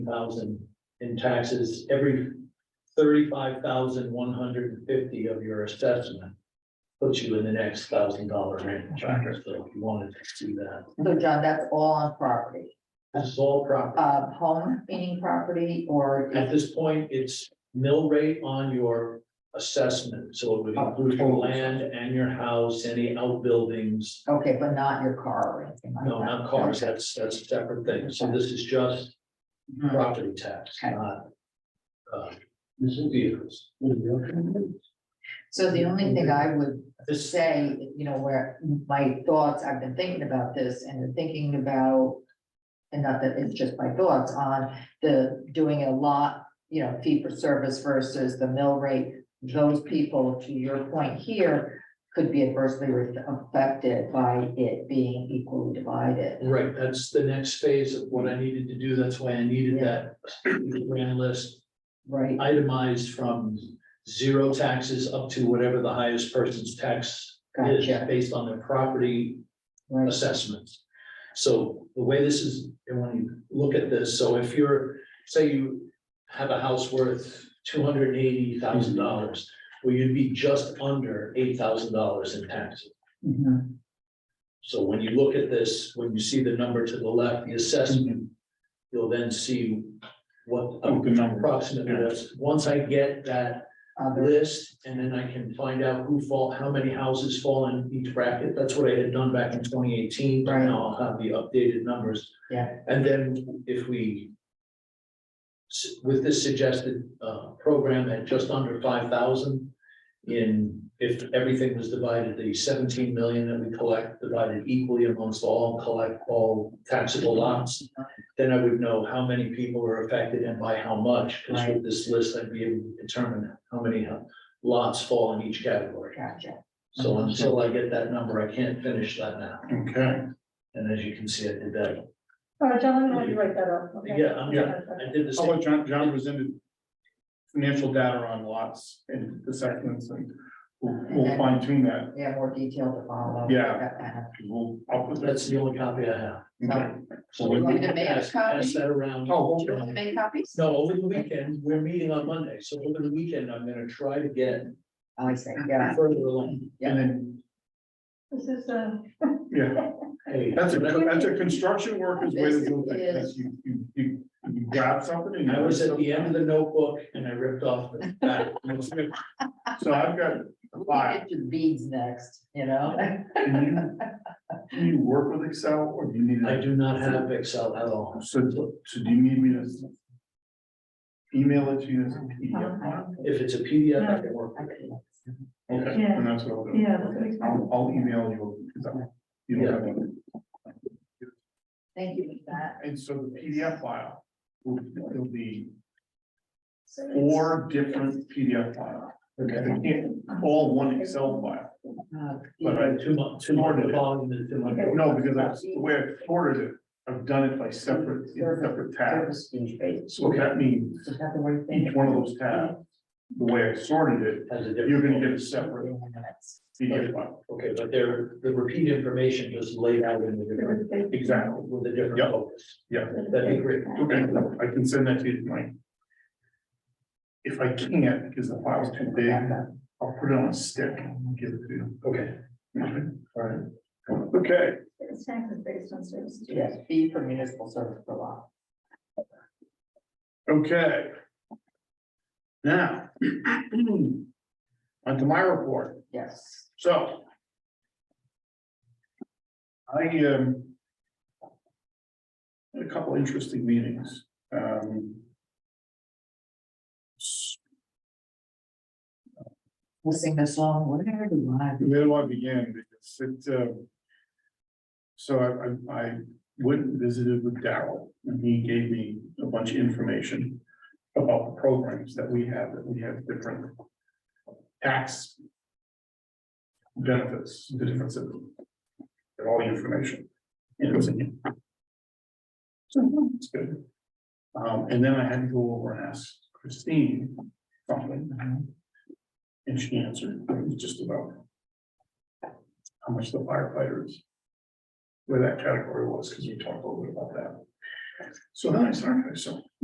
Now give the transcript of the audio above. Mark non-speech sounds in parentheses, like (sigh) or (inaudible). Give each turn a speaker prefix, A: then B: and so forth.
A: thousand in taxes every thirty-five thousand one hundred and fifty of your assessment. Puts you in the next thousand dollar range, so if you wanted to do that,
B: So John, that's all on property,
A: this is all property.
B: uh, home meaning property or
A: At this point, it's mill rate on your assessment, so it would include your land and your house, any outbuildings.
B: Okay, but not your car or anything like that?
A: No, not cars, that's, that's a separate thing, so this is just
B: Mhm.
A: property tax,
B: Okay.
A: not. uh, Vehicles.
B: Mm-hmm. So the only thing I would
A: This,
B: say, you know, where my thoughts, I've been thinking about this and thinking about. And not that it's just my thoughts on the doing a lot, you know, fee for service versus the mill rate. Those people, to your point here, could be adversely affected by it being equally divided.
A: right, that's the next phase of what I needed to do, that's why I needed that grand list
B: Right,
A: itemized from zero taxes up to whatever the highest person's tax is,
B: gotcha,
A: based on their property
B: right,
A: assessments. So the way this is, and when you look at this, so if you're, say you have a house worth two hundred and eighty thousand dollars, well, you'd be just under eight thousand dollars in taxes.
B: mhm,
A: So when you look at this, when you see the number to the left, the assessment, you'll then see what
C: Oh, good number.
A: approximately is. Once I get that
B: other,
A: list, and then I can find out who fall, how many houses fall in each bracket. That's what I had done back in twenty eighteen, but
B: Right.
A: now I'll have the updated numbers.
B: Yeah.
A: And then if we s- with this suggested uh program at just under five thousand in, if everything was divided, the seventeen million that we collect divided equally amongst all collect all taxable lots, then I would know how many people are affected and by how much, because with this list, I'd be able to determine how many uh, lots fall in each category.
B: gotcha,
A: So
C: Uh-huh.
A: until I get that number, I can't finish that now.
C: Okay,
A: And as you can see, I did that.
D: Oh, John, I'm gonna write that up. okay?
A: Yeah, I'm-
D: Okay.
A: I did the
C: how
A: same.
C: about John, John presented financial data on lots and assessments and we'll we'll fine tune that.
B: yeah, more detail to follow.
C: Yeah.
B: That kind of-
C: We'll, I'll put
A: That's
C: that.
A: the only copy I have.
C: Okay.
A: So
B: You want me to make a
A: pass pass that around.
C: Oh,
B: Do you want to make copies?
A: No, over the weekend, we're meeting on Monday, so over the weekend, I'm gonna try to get
B: I see, yeah,
A: further along.
C: And then,
D: This is, uh,
C: yeah,
A: Hey,
C: that's a, that's a construction worker's way to do
B: This
C: things. That's
B: is-
C: You, you, you you grab something and. you-
A: I was at the end of the notebook and I ripped off the back.
C: So I've got
B: we can
C: five.
B: get to beads next, you (laughs) know?
C: Can you, do you work with Excel or do you need?
A: I do not have Excel at all.
C: So, so do you need me to? s- Email it to you as a PDF? file?
A: If it's a PDF, I can work. with it.
C: Okay,
D: Yeah.
C: and that's what I'll do.
D: Yeah, that's what we-
C: I'll, I'll email you. 'cause I- You don't have one.
B: Thank you for that.
C: And so the PDF file will, it'll be
D: so it's-
C: four different PDF files.
A: Okay.
C: I can't, all one Excel file.
B: Uh,
C: But I,
A: Too much, too much volume is too much.
C: no, because that's the way I've sorted it. I've done it by separate, in separate tabs.
B: Prestige base,
C: So that means
B: is that the right thing?
C: each one of those tabs, the way I sorted it,
A: Has a different-
C: you're gonna get a separate
B: Minutes.
C: PDF file.
A: Okay, but they're, the repeat information is laid out in the different,
C: Exactly,
A: with a different
C: Yep.
A: focus.
C: yeah,
A: That'd be great.
C: okay, I can send that to you tonight. If I can't, because the file's too big, I'll put it on a stick and give it to you.
A: Okay,
C: Okay.
A: all right.
C: Okay,
D: It's taxes based on service.
B: Yes, fee for municipal service for law.
C: okay. Now. (clears throat) On to my report,
B: Yes.
C: so. I, um. Had a couple interesting meetings, um. s-
B: We'll sing the song, whatever you want.
C: Where do I begin? Because it, uh. So I, I, I went and visited with Daryl and he gave me a bunch of information. About the programs that we have, that we have different. Tax. Benefits, the difference in. them, And all the information. And it was in here. So it's good. Um, and then I had to go over and ask Christine something. And she answered, it was just about. How much the firefighters. Where that category was, because we talked a little bit about that. So then I started, so